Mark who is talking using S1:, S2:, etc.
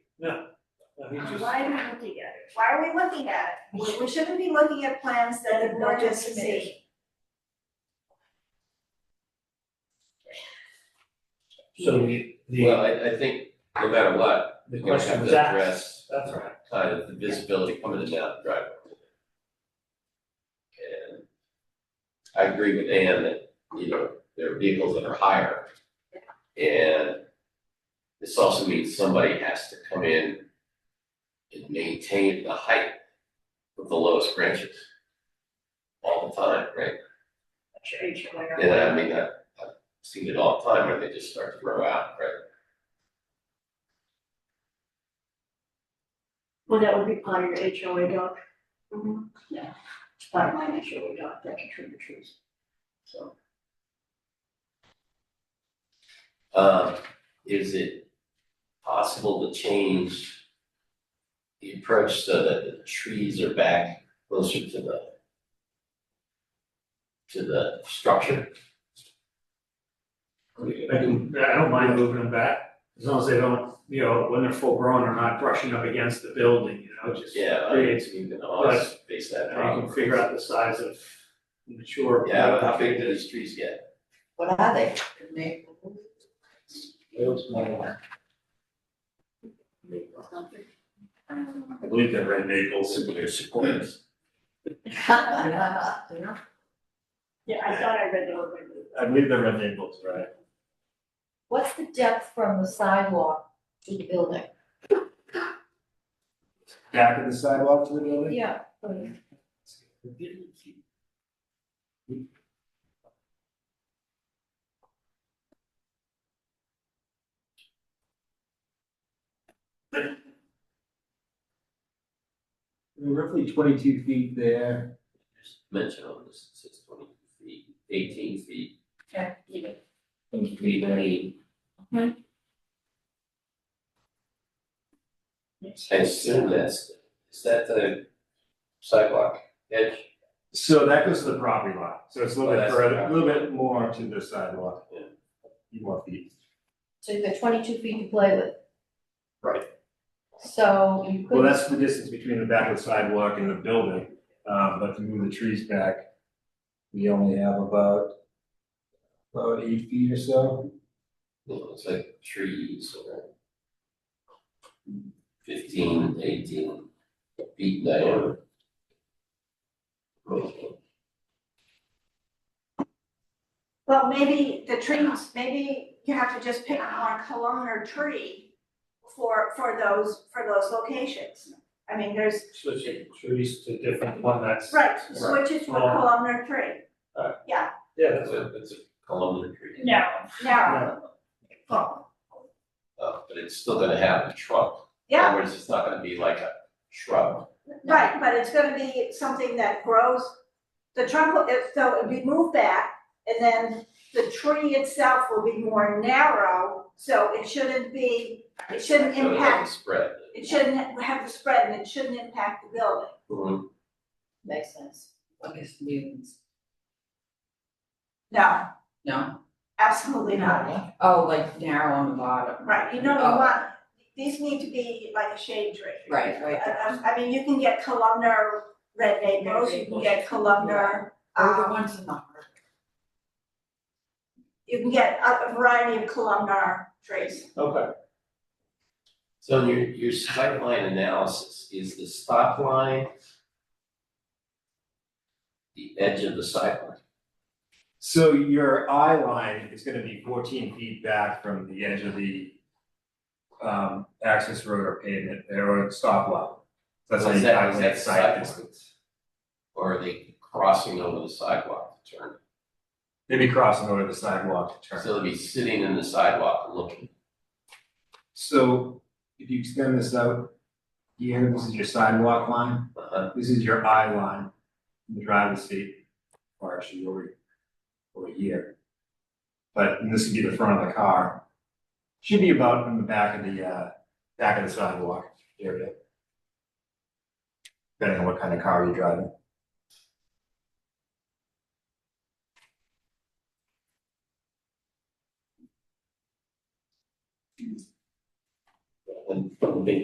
S1: No, he just,
S2: Why are we looking at it? Why are we looking at it? We- We shouldn't be looking at plans that the board has seen.
S1: so the,
S3: Well,
S1: the,
S3: I, I think no matter what,
S1: the
S3: we're gonna
S1: question
S3: have
S1: was
S3: to
S1: asked,
S3: address
S1: that's right.
S3: kind of the visibility coming in and out of the driveway. And I agree with Ann that, you know, there are vehicles that are higher. And this also means somebody has to come in and maintain the height of the lowest branches all the time, right? And I mean, I, I've seen it all the time where they just start to grow out, right?
S4: Well, that would be part of your HOA doc,
S5: Mm-hmm.
S2: Mhm.
S4: it's part of my HOA doc, that can trim the trees.
S3: So. Uh, is it possible to change the approach so that the trees are back closer to the to the structure?
S1: I can, I don't mind moving them back, as long as they don't, you know, when they're full grown, are not brushing up against the building, you know, just.
S3: Yeah, I mean,
S1: creates-
S3: you can always face that
S1: And I
S3: problem.
S1: can figure out the size of mature.
S3: Yeah, but how big do these trees get?
S6: What are they? Can they-
S4: Or something.
S7: I believe they're red maples, but they're sequoias.
S4: Yeah, I thought I read the whole thing.
S7: I believe they're red maples, right?
S6: What's the depth from the sidewalk to the building?
S7: Back of the sidewalk to the building?
S6: Yeah.
S8: roughly twenty-two feet there.
S3: Just mention on this, it says twenty feet, eighteen feet. I assume that's, is that the sidewalk edge?
S7: So that goes to the property line, so it's a little
S3: Oh,
S7: bit
S3: that's
S7: further,
S3: the
S7: a little bit more to the sidewalk.
S3: Yeah.
S7: You want the,
S6: So you've got twenty-two feet to play with.
S7: Right.
S6: So you
S7: well,
S6: could,
S7: that's the distance between the back of the sidewalk and the building, um, but to move the trees back, we only have about about eight feet or so.
S3: Well, it's like trees or fifteen, eighteen feet diameter.
S2: Well, maybe the trees, maybe you have to just pick
S4: Ah.
S2: one columnar tree for, for those, for those locations. I mean, there's,
S1: Switch it, trees to different one that's.
S2: right, switches for
S1: Right.
S2: columnar tree,
S1: Yeah, that's
S3: That's a, that's a columnar tree.
S4: No,
S2: narrow.
S3: Uh, but it's still gonna have a trunk. In
S2: Yeah,
S3: other words, it's not gonna be like a shrub.
S2: right, but it's gonna be something that grows, the trunk, will- if, so it'd be moved back, and then the tree itself will be more narrow, so it shouldn't be, it shouldn't
S3: So it
S2: impact,
S3: doesn't spread.
S2: it shouldn't have the spread, and it shouldn't impact the building.
S3: Mhm.
S6: makes sense.
S5: I guess mutants,
S2: No,
S5: no?
S2: absolutely not,
S5: Oh, like narrow on the bottom.
S2: right, you know, you
S5: Oh.
S2: want, these need to be like a shade tree.
S5: Right, right.
S2: I, I- I mean, you can get columnar red maples, you can get columnar,
S5: Or the
S2: um,
S5: ones in the harbor.
S2: you can get a a variety of columnar trees.
S1: Okay.
S3: So your, your sight line analysis is the stop line, the edge of the sight line.
S7: So your eye line is gonna be fourteen feet back from the edge of the um, access road or pavement, or stop line. So That's how
S3: Is
S7: you
S3: that- is
S7: calculate
S3: that
S7: site
S3: sight line?
S7: distance.
S3: Or are they crossing over the sidewalk to turn?
S7: They'd be crossing over the sidewalk to turn.
S3: So they'll be sitting in the sidewalk and looking.
S7: So if you extend this out here, this is your sidewalk line,
S3: Uh-huh.
S7: uh, this is your eye line, the driver's seat, or actually over, over here. But and this would be the front of the car. Should be about in the back of the, uh, back of the sidewalk area. Depending on what kind of car you're driving.
S3: And from the